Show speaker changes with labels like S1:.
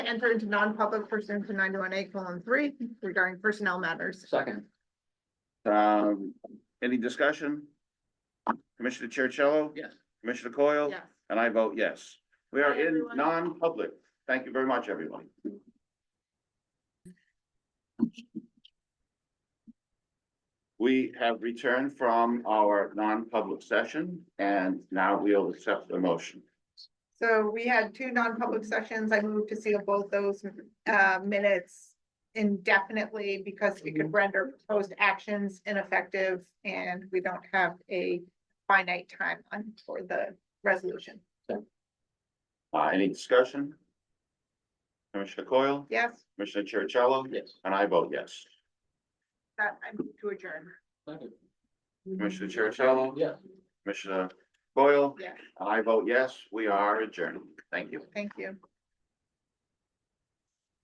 S1: enter into non-public pursuant to ninety-one A colon three regarding personnel matters.
S2: Second,
S3: Um, any discussion? Commissioner Chercello?
S2: yes.
S3: Commissioner Coyle?
S1: Yes.
S3: And I vote yes. We are
S1: Bye,
S3: in
S1: everyone.
S3: non-public. Thank you very much, everyone. We have returned from our non-public session and now we'll accept the motion.
S1: So we had two non-public sessions. I moved to seal both those uh minutes indefinitely because we could render proposed actions ineffective and we don't have a finite timeline for the resolution.
S3: Uh, any discussion? Commissioner Coyle?
S1: Yes,
S3: Commissioner Chercello?
S2: Yes.
S3: And I vote yes.
S1: that I move to adjourn.
S2: Second.
S3: Commissioner Chercello?
S2: Yes.
S3: Commissioner Coyle?
S1: Yeah.
S3: And I vote yes. We are adjourned. Thank you.
S1: Thank you.